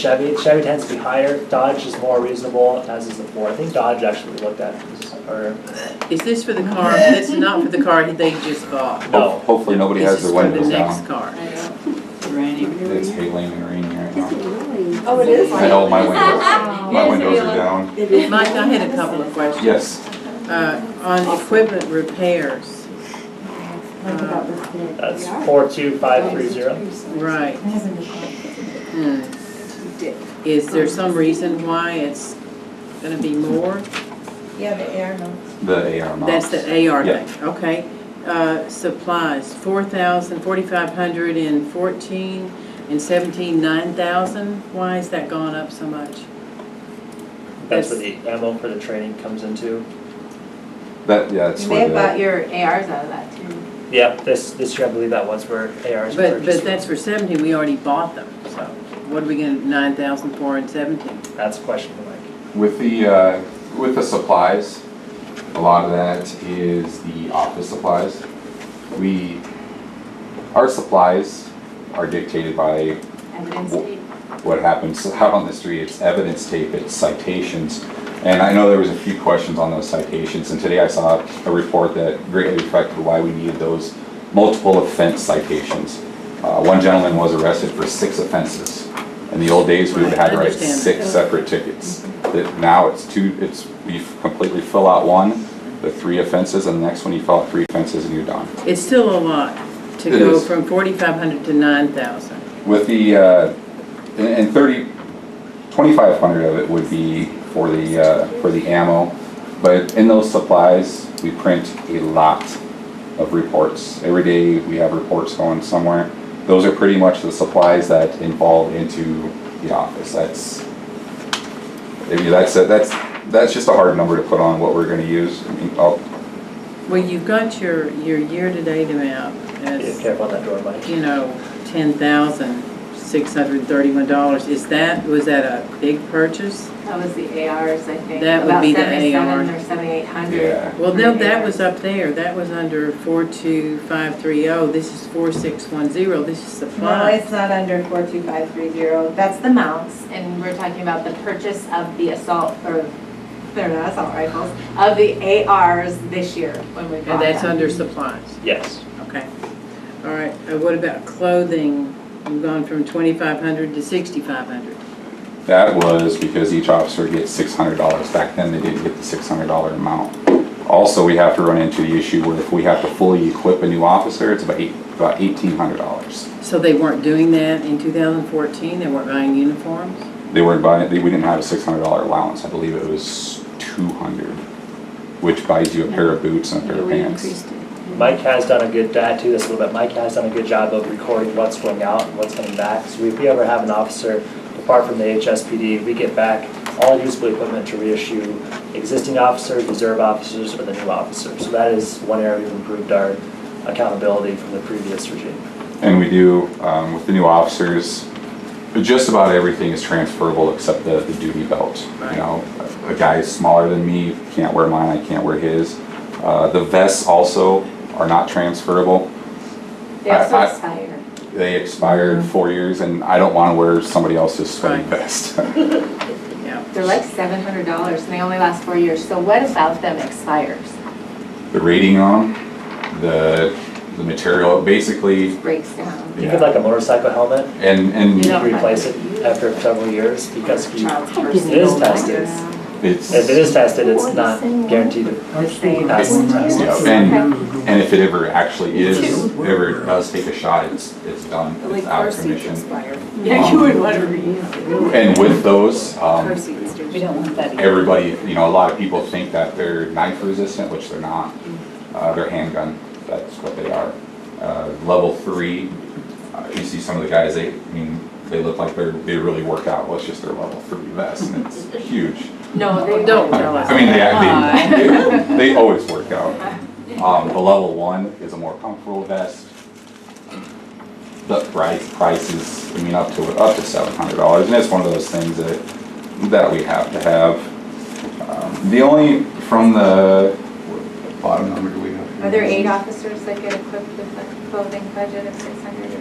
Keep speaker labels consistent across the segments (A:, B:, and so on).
A: Chevy, Chevy tends to be higher, Dodge is more reasonable, as is the Ford, I think Dodge actually we looked at, or,
B: Is this for the car, this is not for the car they just bought?
A: no.
C: Hopefully, nobody has their
B: This
C: windows
B: is
C: down.
B: for the next car.
C: It's hailing and raining right now.
D: Oh, it is?
C: I know my windows, my
D: Yes,
C: windows are down.
B: Mike, I had a couple of questions.
C: Yes,
B: Uh, On equipment repairs, Uh,
A: That's four two five three zero.
B: right. Hmm. Is there some reason why it's gonna be more?
E: Yeah, the air notes.
C: the AR
B: That's
C: mounts.
B: the AR
C: Yeah.
B: thing, okay. Uh, Supplies, four thousand, forty-five hundred and fourteen, and seventeen, nine thousand? Why has that gone up so much?
A: That's where the ammo for the training comes into.
C: That, yeah, that's where
E: They bought
C: the,
E: your ARs out of that too.
A: Yep, this, this year I believe that was where ARs were
B: But, but
A: purchased.
B: that's for seventeen, we already bought them, so what are we gonna, nine thousand four and seventeen?
A: That's a question for Mike.
C: with the, uh, with the supplies, a lot of that is the office supplies. We, our supplies are dictated by
E: Evidence
C: Well-
E: tape.
C: what happens out on the street. It's evidence tape, it's citations. And I know there was a few questions on those citations, and today I saw a report that greatly reflected why we needed those multiple offense citations. Uh, one gentleman was arrested for six offenses. In the old days, we would have had to
B: Right, I
C: write
B: understand
C: six
B: that.
C: separate tickets. That now it's two, it's, you completely fill out one, the three offenses, and the next one you fill out three offenses and you're done.
B: It's still a lot to
C: It
B: go
C: is.
B: from forty-five hundred to nine thousand.
C: With the, uh, and- and thirty, twenty-five hundred of it would be for the, uh, for the ammo. But in those supplies, we print a lot of reports. Every day, we have reports going somewhere. Those are pretty much the supplies that involve into the office. That's, I mean, that's, a- that's, that's just a hard number to put on what we're gonna use. I mean, I'll-
B: Well, you've got your, your year-to-date amount
A: Be
B: as,
A: careful on that door, Mike.
B: you know, ten thousand six hundred and thirty-one dollars. Is that, was that a big purchase?
E: That was the ARs, I think.
B: That would be the AR.
E: About 77 or 7,800.
C: Yeah.
B: Well, no, that was up there, that was under four-two-five-three-oh, oh. this is four-six-one-zero, this is
E: No,
B: supplies.
E: it's not under 42530. That's the mounts, and we're talking about the purchase of the assault, or, they're not assault rifles, of the ARs this year when we bought
B: And that's
E: them.
B: under supplies.
A: Yes,
B: Okay, all right, uh, what about clothing? You've gone from twenty-five hundred to sixty-five hundred.
C: That was because each officer gets six hundred dollars. Back then, they didn't get the six hundred dollar amount. Also, we have to run into the issue where if we have to fully equip a new officer, it's about eight, about eighteen hundred dollars.
B: So they weren't doing that in two thousand fourteen, they weren't buying uniforms?
C: They weren't buying, they, we didn't have a six hundred dollar allowance. I believe it was two hundred, which buys you a pair of boots and a pair of pants.
A: Mike has done a good, to add to this a little bit, Mike has done a good job of recording what's going out and what's coming back. So if we ever have an officer depart from the HSPD, we get back all usable equipment to reissue existing officers, reserve officers, or the new officer. So that is one area we've improved our accountability from the previous regime.
C: And we do, um, with the new officers, just about everything is transferable except the, the duty belt. You
B: Right.
C: know, a guy smaller than me can't wear mine, I can't wear his. Uh, the vests also are not transferable.
E: They also
C: I- I-
E: expire.
C: They expired four years and I don't wanna wear somebody else's sweaty
B: Mm-hmm. Right.
C: vest.
B: Yeah.
E: They're like $700, and they only last four years. So what about them expires?
C: The rating on 'em, the, the material, basically,
E: Breaks down.
A: You could like a motorcycle helmet,
C: and, and
A: you
E: Yeah.
A: can replace it after several years because you-
E: Child's
A: it is tested.
C: it's.
A: If it is tested, it's not guaranteed to pass the test.
C: Yeah, And, and if it ever actually is, ever does take a shot, it's, it's done, it's out of commission.
E: Yeah, you would want to reuse it.
C: And with those, um,
E: We don't want that.
C: everybody, you know, a lot of people think that they're knife resistant, which they're not. Uh, they're handgun, that's what they are. Uh, level three, uh, you see some of the guys, they, I mean, they look like they're, they really work out, well, it's just their level three vest, and it's huge.
E: No, they
B: Don't
E: don't.
B: tell us.
C: I mean, they, they, they always work out. Um, the level one is a more comfortable vest. The price, price is, I mean, up to, up to seven hundred dollars, and it's one of those things that, that we have to have. Um, The only, from the, what bottom number do we have? here?
E: Are there eight officers that get equipped with a clothing budget of six hundred?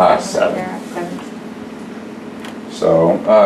C: Uh, seven.
E: Seven.
C: Just Uh, So, uh,